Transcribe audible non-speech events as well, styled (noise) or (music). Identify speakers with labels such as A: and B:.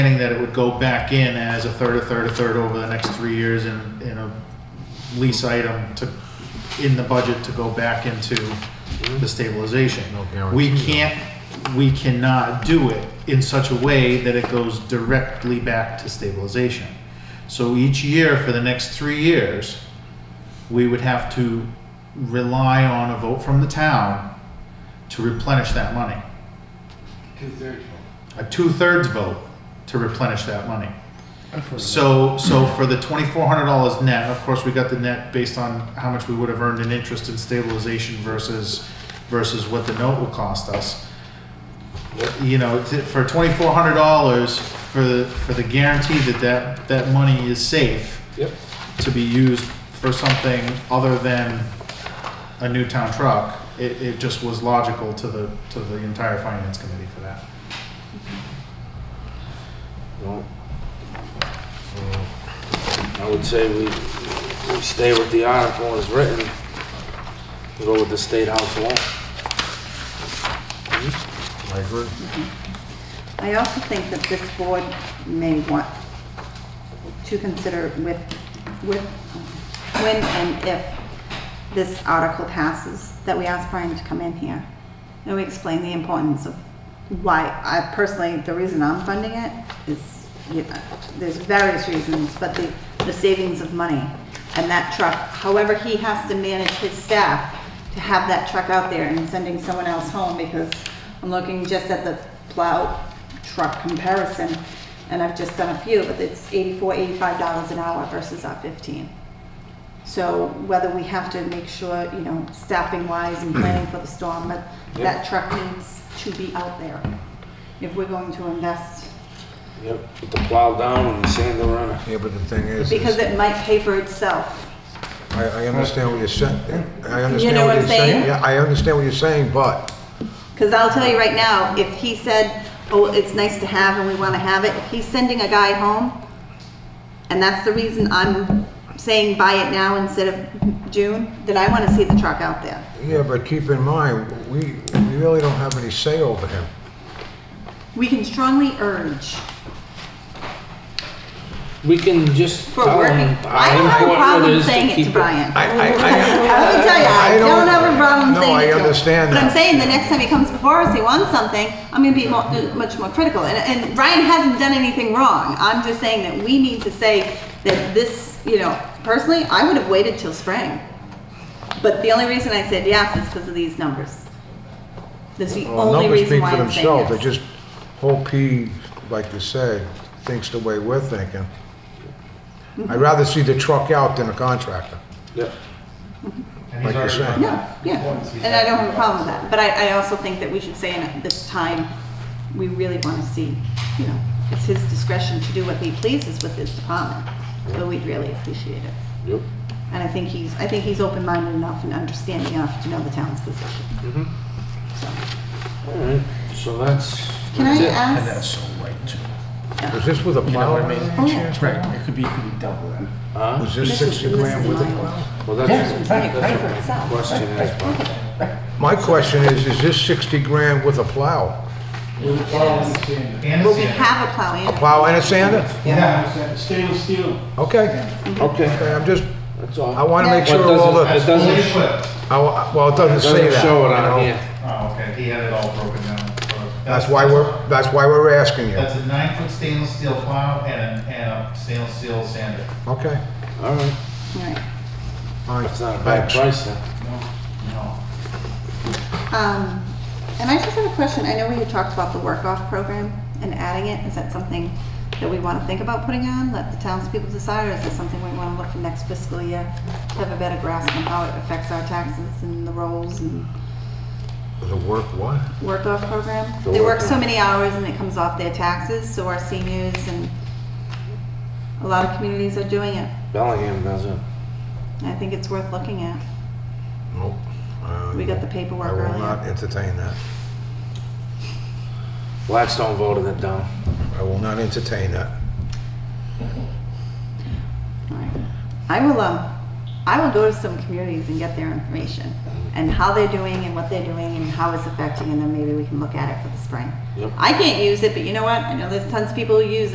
A: planning that it would go back in as a third, a third, a third over the next three years and, in a lease item to, in the budget to go back into the stabilization.
B: No guarantee,
A: We
B: though.
A: can't, we cannot do it in such a way that it goes directly back to stabilization. So each year for the next three years, we would have to rely on a vote from the town to replenish that money.
C: Two-thirds
A: a two-thirds vote to replenish that money. So, so for the twenty-four hundred dollars net, of course, we got the net based on how much we would have earned in interest and stabilization versus, versus what the note would cost us. You know, to- for twenty-four hundred dollars, for, the- for the guarantee that that, that money is safe
C: Yep.
A: to be used for something other than a new town truck, it, it just was logical to the, to the entire finance committee for that.
C: Well, uh, I would say we, we stay with the article as written, and go with the state house law.
B: Mm-hmm. I agree.
D: I also think that this board may want to consider with, with, when and if this article passes, that we ask Brian to come in here and we explain the importance of why, I personally, the reason I'm funding it is, you know, there's various reasons, but the, the savings of money and that truck, however he has to manage his staff to have that truck out there and sending someone else home because I'm looking just at the plow truck comparison and I've just done a few, but it's eighty-four, eighty-five dollars an hour versus our fifteen. So whether we have to make sure, you know, staffing wise and planning for the storm, but that truck needs to be out there. If we're going to invest,
C: Yep, put the plow down and the sand the runner.
B: Yeah, but the thing is,
D: because
B: is
D: it might pay for itself.
B: I, I understand what you're saying. I understand
D: know what I'm
B: you're
D: saying?
B: Yeah, I understand what you're saying, but
D: Because I'll tell you right now, if he said, oh, it's nice to have and we want to have it, if he's sending a guy home, and that's the reason I'm saying buy it now instead of June, then I want to see the truck out there.
B: yeah, but keep in mind, we we really don't have any say over him.
D: We can strongly urge
C: We can just
D: for
C: tell
D: working.
C: them
D: I
C: how important
D: don't have a
C: it
D: problem
C: is to
D: saying it
C: keep
D: to Brian.
B: I
D: (laughs)
B: I, I,
D: Let me tell you, I
B: I don't-
D: don't have a problem
B: No,
D: saying
B: I
D: it to him.
B: understand
D: But I'm
B: that.
D: saying the next time he comes before us, he wants something, I'm gonna be mo- much more critical. And, and Ryan hasn't done anything wrong. I'm just saying that we need to say that this, you know, personally, I would have waited till spring. But the only reason I said yes is because of these numbers. That's the
B: Well,
D: only
B: numbers
D: reason
B: speak
D: why
B: for
D: I'm saying yes.
B: themselves, they just, whole P, like you say, thinks the way we're thinking.
D: Mm-hmm.
B: I'd rather see the truck out than a contractor,
C: Yep.
A: And he's
B: like you're
A: already-
B: saying.
D: Yeah, yeah, and I don't have a problem with that, but I, I also think that we should say in this time, we really wanna see, you know, it's his discretion to do what he pleases with his department, so we'd really appreciate it.
C: Yep.
D: And I think he's, I think he's open-minded enough and understanding enough to know the town's position. So,
C: All right, so that's,
D: Can
C: that's
D: I
C: it.
E: And that's
D: ask, Oh,
E: so right too.
B: Is this with a
E: You know
B: plow?
E: what I mean?
B: by any chance?
E: Right, it could be, it could be double that.
C: Huh?
B: Was
D: This
B: this
D: is-
B: sixty
D: this
B: grand
D: is
B: with a
D: mine.
B: plow?
C: Well,
E: Yeah,
C: that's,
E: right, right
C: that's
E: for
C: what
E: itself.
C: the question is, but
B: My question is, is this sixty grand with a plow?
A: And
D: well, we
A: Sandra.
D: have a plow in,
B: Plow and a sander?
A: Yeah.
F: Stainless steel.
B: Okay,
C: okay,
B: okay, I'm just,
C: that's
B: I
C: all.
B: wanna make
C: Well, it
B: sure all the,
C: doesn't-
B: I,
C: It doesn't,
A: equipped.
B: wa- well, it doesn't say
C: doesn't
B: that.
C: show it
B: you know?
C: on here.
A: Oh, okay, he had it all broken down.
B: That's why we're, that's why we're asking you,
A: That's a nine-foot stainless steel plow and a, and a stainless steel sander.
B: okay?
C: All right,
D: right.
B: All right,
C: that's not a bad
B: thanks.
C: price then.
A: No.
D: Um, and I just have a question. I know we had talked about the work-off program and adding it. Is that something that we want to think about putting on? Let the townspeople decide, or is it something we want to look for next fiscal year to have a better grasp on how it affects our taxes and the rolls and
B: The work what?
D: work-off program?
C: The
D: They work so
C: work-off.
D: many hours and it comes off their taxes, so our seniors and a lot of communities are doing it.
C: Bellingham doesn't.
D: I think it's worth looking at.
B: Nope. Uh,
D: We got the paperwork
B: I will
D: earlier.
B: not entertain that.
C: Blackstone voted it down.
B: I will not entertain that.
D: Alright. I will, um, I will go to some communities and get their information and how they're doing and what they're doing and how it's affecting, and then maybe we can look at it for the spring.
C: Yep.
D: I can't use it, but you know what? I know there's tons of people who use